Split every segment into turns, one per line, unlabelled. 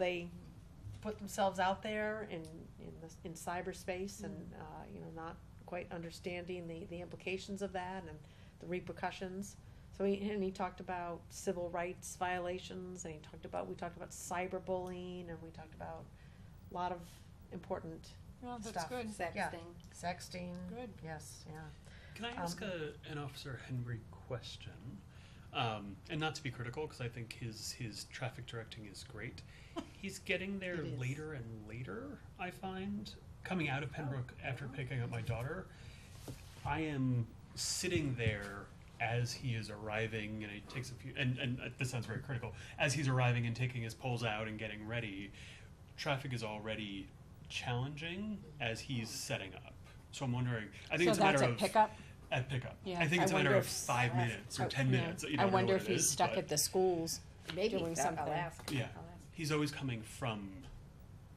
they put themselves out there in, in, the, in cyberspace and, uh, you know, not quite understanding the, the implications of that and the repercussions. So he, and he talked about civil rights violations and he talked about, we talked about cyberbullying and we talked about a lot of important
No, that's
Stuff.
good.
Yeah.
Sexting.
sexting.
Good.
Yes, yeah.
Can
Um,
I ask a, an Officer Henry question? Um, and not to be critical, because I think his his traffic directing is great. He's getting there
It is.
later and later. I find coming out of Pembroke
Oh,
after picking up my daughter, I am sitting there as he is arriving, and it takes a few. And and uh, this sounds very critical. As he's arriving and taking his poles out and getting ready, traffic is already challenging as he's setting up. So I'm wondering. I think
Oh. So
it's a
that's
matter
a
of
pickup?
at pickup.
Yeah,
I think
I
it's a matter
wonder
of
if-
five minutes or
Oh,
ten
yeah.
minutes. You
I
don't know
wonder
what
if
it
he's
is,
stuck
but-
at the schools.
Maybe
Doing
so- I'll
something.
ask.
Yeah,
I'll ask.
he's always coming from,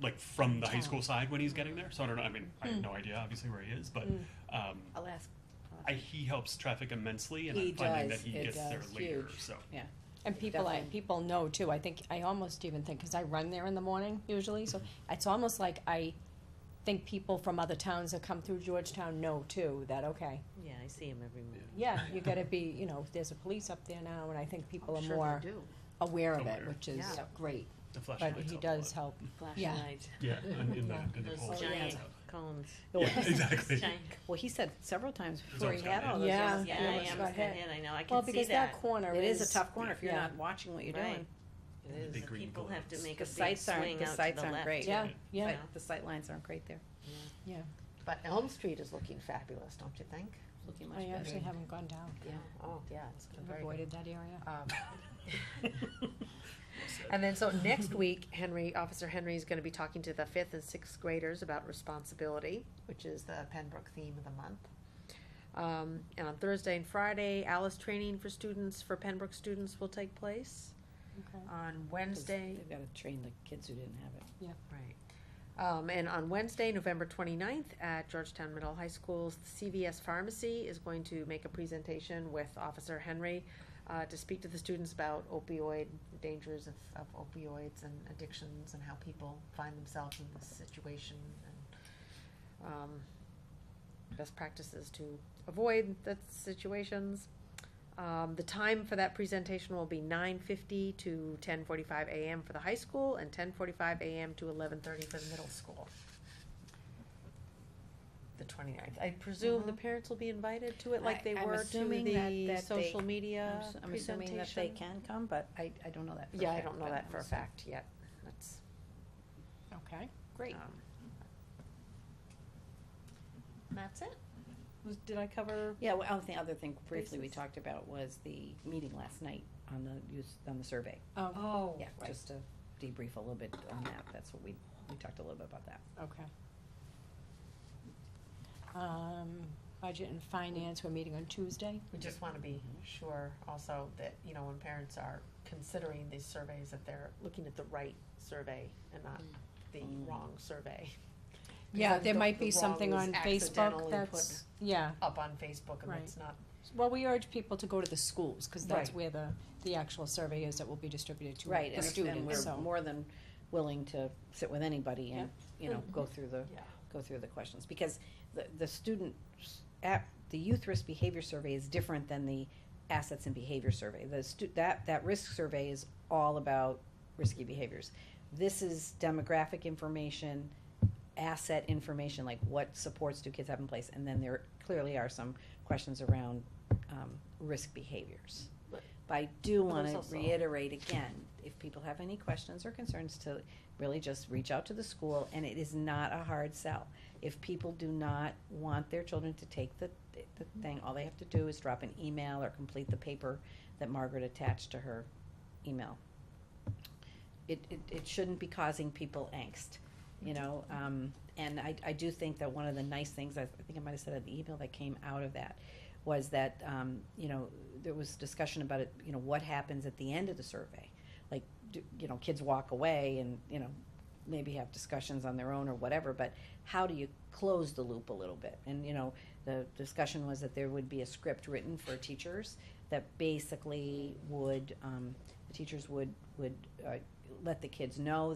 like, from the high
Town. Hmm.
school side when he's getting there. So I don't know. I mean, I have no idea, obviously, where he is, but um,
I'll ask.
I, he helps traffic immensely, and
He
I'm finding
does,
that he
it
gets there
does,
later.
huge.
So
Yeah.
And people, I,
Definitely.
people know too. I think I almost even think because I run there in the morning usually, so it's almost like I think people from other towns that come through Georgetown know too that okay,
Yeah, I see him every morning.
yeah, you got to be, you know, there's a police up there now, and I think people
I'm
are
sure they
more
do.
aware of it,
Aware.
which is
Yeah.
great.
the
But
flashlights.
he
help a lot.
does help. Yeah.
Flashing lights,
Yeah, and in the, in the
those
polls.
giant cones.
Yeah, exactly.
Giant- Well, he said several times before
always
he had
got
all
hit.
those.
Yeah,
Oh,
things.
yeah,
Yeah,
it's
I
got
almost got
hit.
hit, I know, I
Well,
can see
because that
that.
corner
It
is,
is a tough corner if you're
Yeah.
not watching what you're
Right.
doing.
It
The
is,
big
the
green
people have to
buildings.
make
The
a big
sites aren't,
swing
the
out to
sites
the
aren't
left.
great.
Yeah, yeah,
Like, The sight lines aren't great there.
yeah.
But Elm Street is looking fabulous, don't you think?
Looking much
I
better.
actually haven't gone down.
Yeah. Oh, yeah, it's been
I've
very good.
avoided that area.
Um, And then, so next week, Henry, Officer Henry is gonna be talking to the fifth and sixth graders about responsibility, which is the Pembroke theme of the month. Um, and on Thursday and Friday, Alice training for students, for Pembroke students will take place.
Okay.
On
'Cause
Wednesday,
They've gotta train the kids who didn't have it.
Right. Um, and on Wednesday, November 29th, at Georgetown Middle High School's CVS Pharmacy is going to make a presentation with Officer Henry uh, to speak to the students about opioid the dangers of, of opioids and addictions and how people find themselves in this situation and um, best practices to avoid the situations. Um, the time for that presentation will be nine fifty to ten forty-five AM for the high school and ten forty-five AM to eleven thirty for the middle school. The 29th. I presume the parents will be invited to it like
I-
they
I'm
were to
assuming that-
the
that they-
social media
I'm s- I'm
presentation.
assuming that they can come, but I, I don't know that for a
Yeah, I
fact,
don't know
but
that
I'm
for a
assuming.
fact yet. That's,
Okay, great.
um. That's it? Was, did I cover?
Yeah, well, the other thing briefly we
Basis.
talked about was the meeting last night on the use, on the survey.
um,
Oh,
Oh,
Yeah,
right.
just to debrief a little bit on that, that's what we, we talked a little bit about that.
okay. Um, budget and finance, we're meeting on Tuesday.
We just wanna be sure also that, you know, when parents are considering these surveys, that they're looking at the right survey and not
Mm.
the wrong survey.
Yeah,
Because
there
the-
might
the wrong
be something
was
on
accidentally
Facebook
put
that's, yeah.
Up on Facebook and
Right.
it's not,
Well, we urge people to go to the schools, cause that's
Right.
where the, the actual survey is that will be distributed to
Right,
the
and and
students,
we're
so.
more than willing to sit with anybody and, you know, go through the,
yeah,
go through the questions, because the, the student, app, the youth risk behavior survey is different than the assets and behavior survey. The stu, that, that risk survey is all about risky behaviors. This is demographic information, asset information, like what supports do kids have in place, and then there clearly are some questions around, um, risk behaviors.
But-
But I do
But there's
wanna
also-
reiterate again, if people have any questions or concerns to really just reach out to the school, and it is not a hard sell. If people do not want their children to take the, the thing, all they have to do is drop an email or complete the paper that Margaret attached to her email. It, it, it shouldn't be causing people angst, you know, um, and I, I do think that one of the nice things, I I think I might have said in the email that came out of that, was that, um, you know, there was discussion about it, you know, what happens at the end of the survey? Like, do, you know, kids walk away and, you know, maybe have discussions on their own or whatever, but how do you close the loop a little bit? And, you know, the discussion was that there would be a script written for teachers that basically would, um, the teachers would, would, uh, let the kids know